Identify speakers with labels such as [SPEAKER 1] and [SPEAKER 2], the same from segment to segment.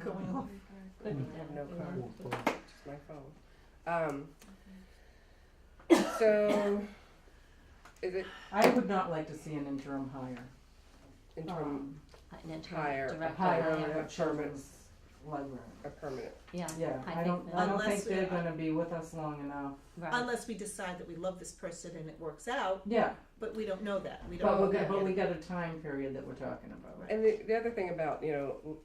[SPEAKER 1] going off. Couldn't
[SPEAKER 2] I have
[SPEAKER 1] have
[SPEAKER 2] no
[SPEAKER 1] been
[SPEAKER 2] car,
[SPEAKER 1] off.
[SPEAKER 2] just my phone. Um, so, is
[SPEAKER 1] Um,
[SPEAKER 2] it
[SPEAKER 3] I would not like to see an interim hire.
[SPEAKER 2] interim,
[SPEAKER 3] Um,
[SPEAKER 1] An interim
[SPEAKER 2] Hire,
[SPEAKER 3] a
[SPEAKER 1] director,
[SPEAKER 3] hire
[SPEAKER 2] yeah.
[SPEAKER 3] of a children's library.
[SPEAKER 2] a permanent?
[SPEAKER 1] yeah,
[SPEAKER 3] Yeah,
[SPEAKER 1] I
[SPEAKER 3] I don't,
[SPEAKER 1] think
[SPEAKER 3] I don't
[SPEAKER 4] that-
[SPEAKER 3] think they're
[SPEAKER 4] Unless we-
[SPEAKER 3] gonna be with us long enough.
[SPEAKER 1] right,
[SPEAKER 4] Unless we decide that we love this person and it works out,
[SPEAKER 3] Yeah,
[SPEAKER 4] but we don't know that. We don't.
[SPEAKER 3] but
[SPEAKER 4] know
[SPEAKER 3] we,
[SPEAKER 4] that
[SPEAKER 3] but we
[SPEAKER 4] yet.
[SPEAKER 3] got a time period that we're talking about.
[SPEAKER 2] And the, the other thing about, you know,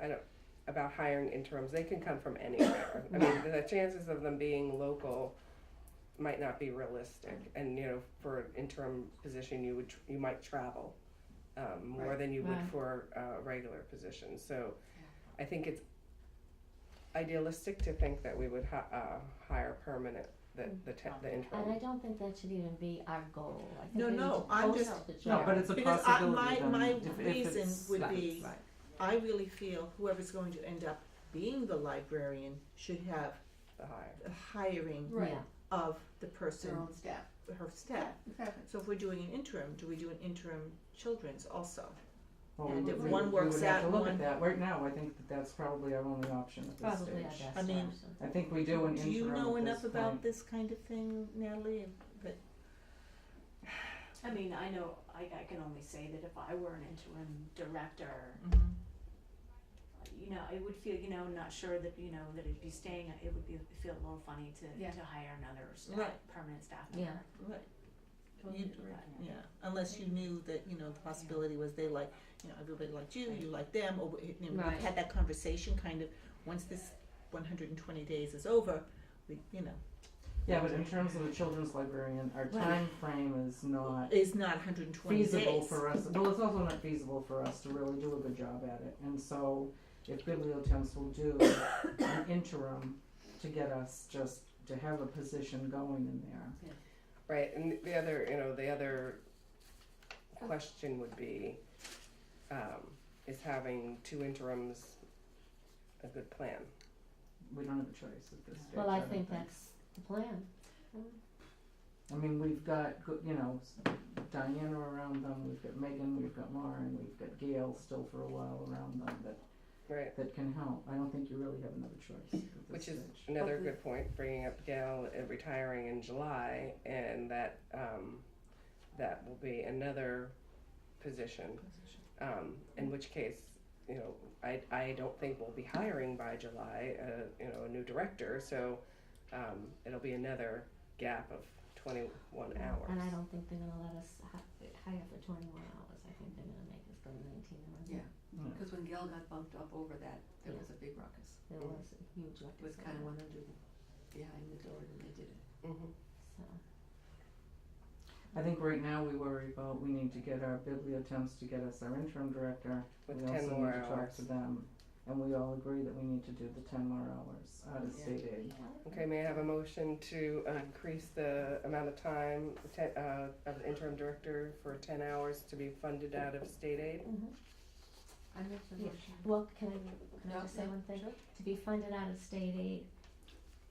[SPEAKER 2] I don't, about hiring interims, they can come from anywhere. I mean, the chances of them being local might not be realistic. And, you know, for an interim position, you would, tr- you might travel um, more than you would
[SPEAKER 1] Right.
[SPEAKER 2] for a regular position. So I think it's idealistic to think that we would hi- uh, hire permanent, the, the, te- the
[SPEAKER 1] and I
[SPEAKER 2] interim.
[SPEAKER 1] don't think that should even be our goal, I think
[SPEAKER 4] No,
[SPEAKER 1] we need
[SPEAKER 4] no,
[SPEAKER 1] to
[SPEAKER 4] I'm
[SPEAKER 1] post
[SPEAKER 4] just-
[SPEAKER 1] out the job.
[SPEAKER 3] No, but it's a
[SPEAKER 4] Because I-
[SPEAKER 3] possibility
[SPEAKER 4] my-
[SPEAKER 3] then,
[SPEAKER 4] my
[SPEAKER 3] if, if
[SPEAKER 4] reason
[SPEAKER 3] it's.
[SPEAKER 4] would
[SPEAKER 1] Right,
[SPEAKER 4] be-
[SPEAKER 1] right.
[SPEAKER 4] I really feel whoever's going to end up being the librarian should have
[SPEAKER 2] The hire.
[SPEAKER 4] the hiring
[SPEAKER 5] Right.
[SPEAKER 1] Yeah,
[SPEAKER 4] of the person,
[SPEAKER 5] Their own staff.
[SPEAKER 4] her staff.
[SPEAKER 5] Exactly.
[SPEAKER 4] So if we're doing an interim, do we do an interim children's also?
[SPEAKER 3] Well,
[SPEAKER 4] and
[SPEAKER 3] we-
[SPEAKER 4] if
[SPEAKER 3] we-
[SPEAKER 4] one works out
[SPEAKER 3] We would have
[SPEAKER 4] and
[SPEAKER 3] to look
[SPEAKER 4] one-
[SPEAKER 3] at that. Right now, I think that that's probably our only option at this stage.
[SPEAKER 1] probably our best
[SPEAKER 4] I mean,
[SPEAKER 1] option.
[SPEAKER 3] I think we do an interim at this
[SPEAKER 4] Do you know enough
[SPEAKER 3] point.
[SPEAKER 4] about this kind of thing, Natalie? That
[SPEAKER 6] I mean, I know, I, I can only say that if I were an interim director, you know, it would feel, you know, not sure that, you know, that it'd be staying, it would be, feel a little funny to,
[SPEAKER 5] Yeah.
[SPEAKER 6] to hire another staff,
[SPEAKER 4] Right.
[SPEAKER 6] permanent staff
[SPEAKER 1] Yeah.
[SPEAKER 6] member.
[SPEAKER 4] right. You-
[SPEAKER 6] Totally agree.
[SPEAKER 4] Yeah, unless you knew that, you know, the possibility was they like, you know, everybody liked you, you liked them, or we- you know,
[SPEAKER 1] Right.
[SPEAKER 4] we had that conversation kind of, once this one hundred and twenty days is over, we, you know,
[SPEAKER 3] Yeah, but in terms of a children's librarian, our time frame is not
[SPEAKER 4] is not hundred and twenty days.
[SPEAKER 3] feasible for us. Well, it's also not feasible for us to really do a good job at it. And so, if Bibliotems will do an interim to get us just to have a position going in there.
[SPEAKER 2] Right, and the other, you know, the other question would be, um, is having two interims a good plan?
[SPEAKER 3] We don't have a choice at this stage.
[SPEAKER 1] Well, I
[SPEAKER 3] don't
[SPEAKER 1] think that's the plan.
[SPEAKER 3] I mean, we've got, go- you know, s- Diana around them, we've got Megan, we've got Lauren, we've got Gail still for a while around them that,
[SPEAKER 2] Right,
[SPEAKER 3] that can help. I don't think you really have another choice at this
[SPEAKER 2] which
[SPEAKER 3] stage.
[SPEAKER 2] is another
[SPEAKER 1] But we-
[SPEAKER 2] good point, bringing up Gail uh, retiring in July, and that, um, that will be another position. Um, in which case, you know, I, I don't think we'll be hiring by July, uh, you know, a new director, so, um, it'll be another gap of twenty-one hours.
[SPEAKER 1] And I don't think they're gonna let us hi- hire for twenty-one hours, I think they're gonna make us go to nineteen hours.
[SPEAKER 5] Yeah. Because when Gail got bumped up over that, there was a big ruckus.
[SPEAKER 1] There was a huge record.
[SPEAKER 5] It was kind of one under behind the door, and they did it.
[SPEAKER 2] Mhm.
[SPEAKER 1] So,
[SPEAKER 3] I think right now we worry about, we need to get our bibliotemps to get us our interim director.
[SPEAKER 2] With
[SPEAKER 3] We
[SPEAKER 2] 10
[SPEAKER 3] also
[SPEAKER 2] more
[SPEAKER 3] need to talk
[SPEAKER 2] hours.
[SPEAKER 3] to them, and we all agree that we need to do the ten more hours out of
[SPEAKER 5] Yeah.
[SPEAKER 3] state aid.
[SPEAKER 1] mm-hmm.
[SPEAKER 2] Okay, may I have a motion to uh, increase the amount of time te- uh, of the interim director for ten hours to be funded out of state aid?
[SPEAKER 5] I make the
[SPEAKER 1] Yeah.
[SPEAKER 5] motion.
[SPEAKER 1] well, can I, can I
[SPEAKER 5] No,
[SPEAKER 1] just say
[SPEAKER 5] no,
[SPEAKER 1] one thing?
[SPEAKER 5] sure.
[SPEAKER 1] To be funded out of state aid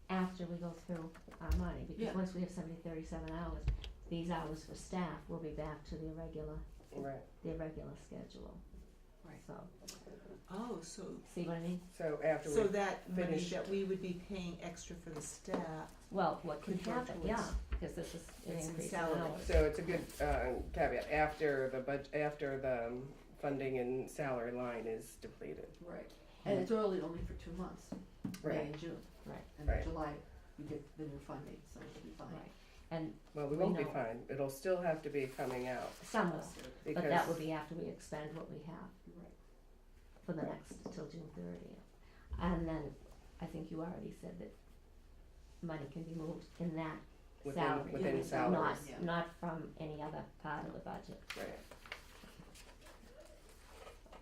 [SPEAKER 1] after we go through our money,
[SPEAKER 5] Yeah.
[SPEAKER 1] because once we have somebody thirty-seven hours, these hours for staff will be back to the irregular,
[SPEAKER 2] Right,
[SPEAKER 1] the irregular schedule.
[SPEAKER 5] Right.
[SPEAKER 1] So,
[SPEAKER 4] Oh, so,
[SPEAKER 1] see what I mean?
[SPEAKER 2] so after
[SPEAKER 4] so
[SPEAKER 2] we,
[SPEAKER 4] that money
[SPEAKER 2] Finish.
[SPEAKER 4] that we would be paying extra for the staff,
[SPEAKER 1] Well, what could
[SPEAKER 4] Could go
[SPEAKER 1] happen,
[SPEAKER 4] towards-
[SPEAKER 1] yeah, because this is an
[SPEAKER 4] It's in
[SPEAKER 1] increase in
[SPEAKER 4] salary.
[SPEAKER 1] hours.
[SPEAKER 2] so it's a good uh, caveat, after the bud, after the um, funding and salary line is depleted.
[SPEAKER 5] Right. And it's really only for two months, May
[SPEAKER 2] Right,
[SPEAKER 5] and June.
[SPEAKER 1] Right.
[SPEAKER 5] And in
[SPEAKER 2] Right.
[SPEAKER 5] July, we get the new funding, so it'll be fine.
[SPEAKER 1] Right. And
[SPEAKER 2] well, we
[SPEAKER 1] We
[SPEAKER 2] won't be
[SPEAKER 1] know.
[SPEAKER 2] fine, it'll still have to be coming out
[SPEAKER 1] some will,
[SPEAKER 2] because.
[SPEAKER 1] but that would be after we expend what we have
[SPEAKER 5] Right.
[SPEAKER 1] for the next, till June thirtieth. And then, I think you already said that money can be moved in that
[SPEAKER 2] Within-
[SPEAKER 1] salary.
[SPEAKER 2] within
[SPEAKER 1] Not,
[SPEAKER 2] salaries,
[SPEAKER 5] yeah.
[SPEAKER 1] not from any other part of the budget.
[SPEAKER 2] Right,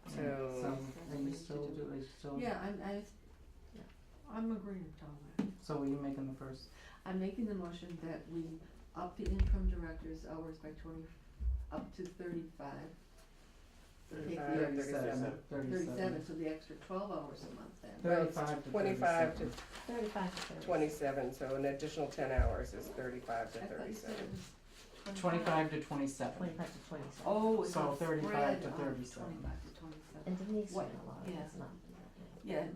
[SPEAKER 3] And
[SPEAKER 2] So-
[SPEAKER 3] So, are you still do, are you still,
[SPEAKER 5] Yeah, I'm, I, s-
[SPEAKER 1] Yeah.
[SPEAKER 5] I'm agreeing with all that.
[SPEAKER 3] so are you making the first?
[SPEAKER 2] Uh,
[SPEAKER 5] I'm making the motion that we up the interim director's hours by twenty, up to thirty-five. So take the
[SPEAKER 2] 35,
[SPEAKER 5] extra-
[SPEAKER 2] 37.
[SPEAKER 5] Thirty-seven, so the extra twelve hours a month then.
[SPEAKER 2] Well, it's
[SPEAKER 3] 35 to
[SPEAKER 2] Twenty-five to
[SPEAKER 3] 37.
[SPEAKER 1] Thirty-five to thirty.
[SPEAKER 2] twenty-seven, so an additional ten hours is thirty-five to
[SPEAKER 5] I thought you said
[SPEAKER 2] thirty-seven.
[SPEAKER 5] it was
[SPEAKER 3] Twenty-five to twenty-seven.
[SPEAKER 1] Twenty-five to twenty-seven.
[SPEAKER 5] Oh, it's
[SPEAKER 3] So
[SPEAKER 5] a
[SPEAKER 3] 35
[SPEAKER 5] spread
[SPEAKER 3] to
[SPEAKER 5] of
[SPEAKER 3] 37.
[SPEAKER 5] Twenty-five to twenty-seven.
[SPEAKER 1] And Denise ran
[SPEAKER 5] What?
[SPEAKER 1] a lot of
[SPEAKER 5] Yeah.
[SPEAKER 1] this, not.
[SPEAKER 5] Yeah,